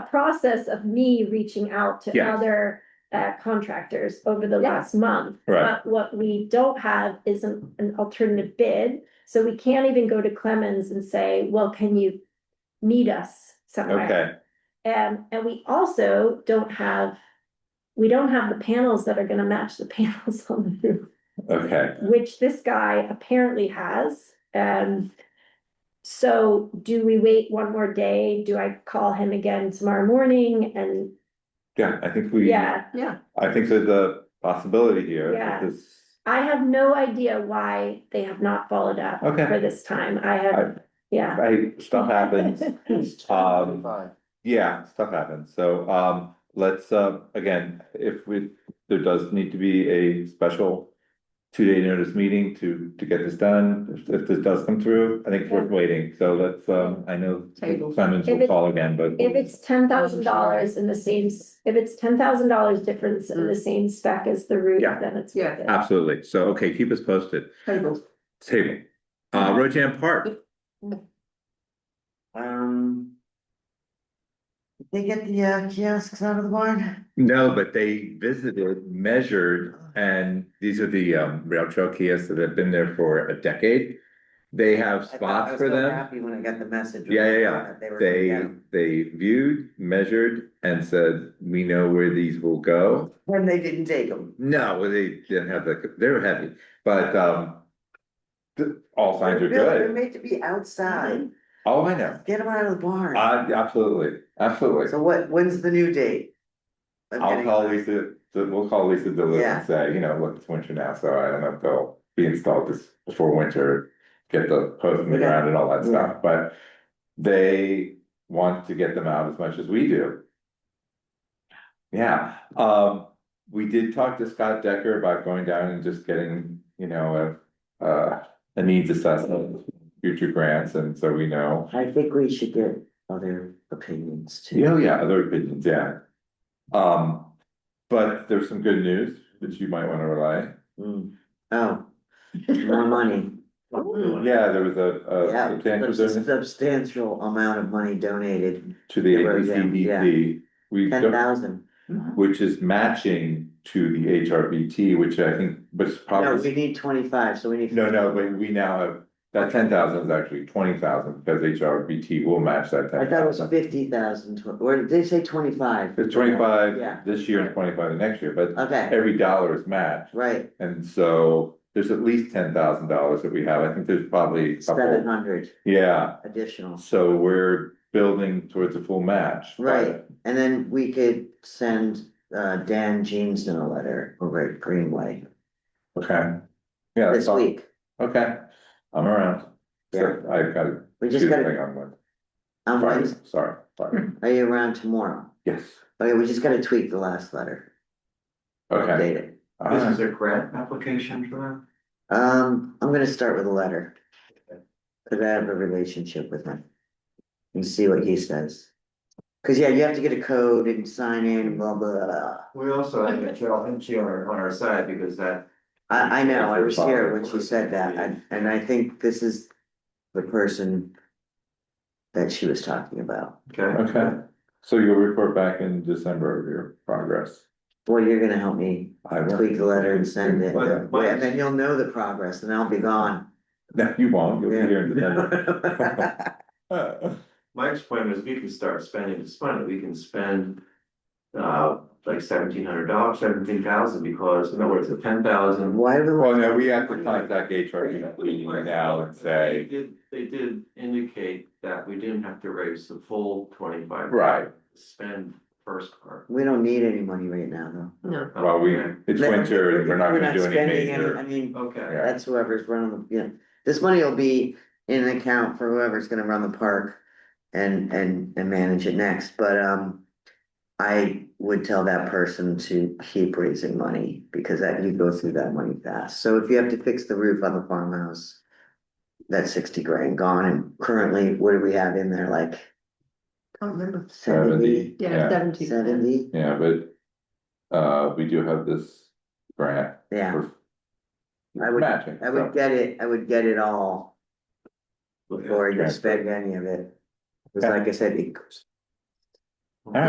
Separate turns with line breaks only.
a process of me reaching out to
Yes.
other uh contractors over the
Yeah.
last month.
Right,
But what we don't have is an, an alternative bid, so we can't even go to Clemens and say, well, can you meet us somewhere?
okay,
And, and we also don't have, we don't have the panels that are gonna match the panels on the roof,
okay,
which this guy apparently has. Um, so do we wait one more day? Do I call him again tomorrow morning? And,
yeah, I think we, I
yeah,
Yeah,
think there's a possibility here. that
Yeah.
this-
I have no idea why they have not followed up
Okay.
for this time. I have, yeah.
Hey, stuff happens, um,
Fine.
yeah, stuff happens, so, um, let's, uh, again, if we, there does need to be a special. Two-day notice meeting to, to get this done, if, if this does come through, I think it's worth waiting, so let's, um, I know
Table.
Clemens
If
will
it-
call again, but.
If it's ten thousand dollars in the same, s- if it's ten thousand dollars difference in the same spec as the roof,
Yeah. Uh,
then it's
Yeah.
worth it.
Absolutely, so, okay, keep us posted,
tables.
table,
Mm-hmm.
uh, Rojan Park,
Um. did They get the uh, kiosks out of the barn?
no, but they visited, measured, and these are the, um, rail trail kiosks that have been there for a decade. They have
I thought- I
spots
was
for
so
them.
Happy when I got the message.
Yeah, yeah, yeah.
that They were.
They,
yeah.
they viewed, measured, and said, we know where these will go.
When they didn't take them.
No, they didn't have the, they were heavy, but, um. th- all signs are
They're
good.
made to be outside.
Oh, I know.
Get them out of the barn.
Uh, absolutely, absolutely.
So what, when's the new date? of
I'll
getting
call
them?
Lisa, so we'll call Lisa DeLuca
Yeah.
and say, you know, look, it's winter now, so I don't know if they'll be installed this before winter. Get the posts in the
Yeah.
ground and all that
Yeah.
stuff, but they want to get them out as much as we do. Yeah, um, we did talk to Scott Decker about going down and just getting, you know, a, uh, a needs assessment. Future grants, and so we know,
I think we should get other opinions too.
you know, yeah, other opinions, yeah. Um, but there's some good news that you might wanna rely.
Mm. Oh, more money.
Yeah, there was a, a
Yeah,
substantial
there's a
donation
substantial amount of money donated,
to the
There was, yeah,
ABCDP. We,
ten
don't-
thousand.
which is matching to the HRBT, which I think was
No, we
probably,
need twenty-five, so we need.
no, no, but we now have, that ten thousand is actually twenty thousand, because HRBT will match that
I
ten
thought it was
thousand.
fifty thousand, or did they say twenty-five?
It's twenty-five
Yeah.
this year and twenty-five the next year, but
Okay,
every dollar is matched,
right,
and so there's at least ten thousand dollars that we have, I think there's probably a
seven
couple,
hundred
yeah,
additional,
so we're building towards a full match. but-
Right. and then we could send uh Dan Jeanson a letter over at Greenway
Okay. Yeah.
this
so-
week.
Okay, I'm around.
Yeah.
So I've got to
We
do
just
the
gotta,
thing on Monday.
on Hmm.
Friday,
Wednesday,
sorry, Friday.
are you around tomorrow?
Yes,
Okay, we just gotta tweak the last letter,
okay.
update it.
All right.
a grant application for that? Um, I'm gonna start with a letter. Cause I have a relationship with him. And see what he says. Cause yeah, you have to get a code and sign in, blah, blah, blah.
We also have a Cheryl Hinchy on our, on our side because that,
I, I know, I was here when she
Father.
said that, and, and I think this is the person that she was talking about.
okay,
Okay, so you'll report back in December of your progress.
Boy, you're gonna help me
I will.
tweak the letter and send it,
But- but-
and then you'll know the progress, and I'll be gone.
No, you won't, you'll be here in December.
Yeah.
Uh,
Mike's point was we can start spending this money, we can spend. Uh, like seventeen hundred dollars, seventeen thousand, because in other words, the ten thousand.
Why
Well,
would,
no, we have to contact E HRBP now and
They
say,
did, they did indicate that we didn't have to raise the full twenty-five.
right,
Spend first part.
we don't need any money right now,
No,
well, we, it's
though.
winter, and we're not gonna do any
spending I
major.
mean,
Okay,
Yeah.
that's whoever's running, the yeah, this money will be in an account for whoever's gonna run the park and, and, and manage it next, but, um, I would tell that person to keep raising money, because that, you go through that money fast, so if you have to fix the roof on the farmhouse, that's sixty grand gone, and currently, what do we have in there, like? I don't remember. Seventy,
Seventy,
yeah,
yeah,
seventy.
seventy,
yeah, but, uh, we do have this grant
yeah,
for
I would-
matching.
I
so.
would get it, I would get it all.
Okay.
before you
Yeah.
spend any of it. Cause
Okay.
like I said, it goes-
right.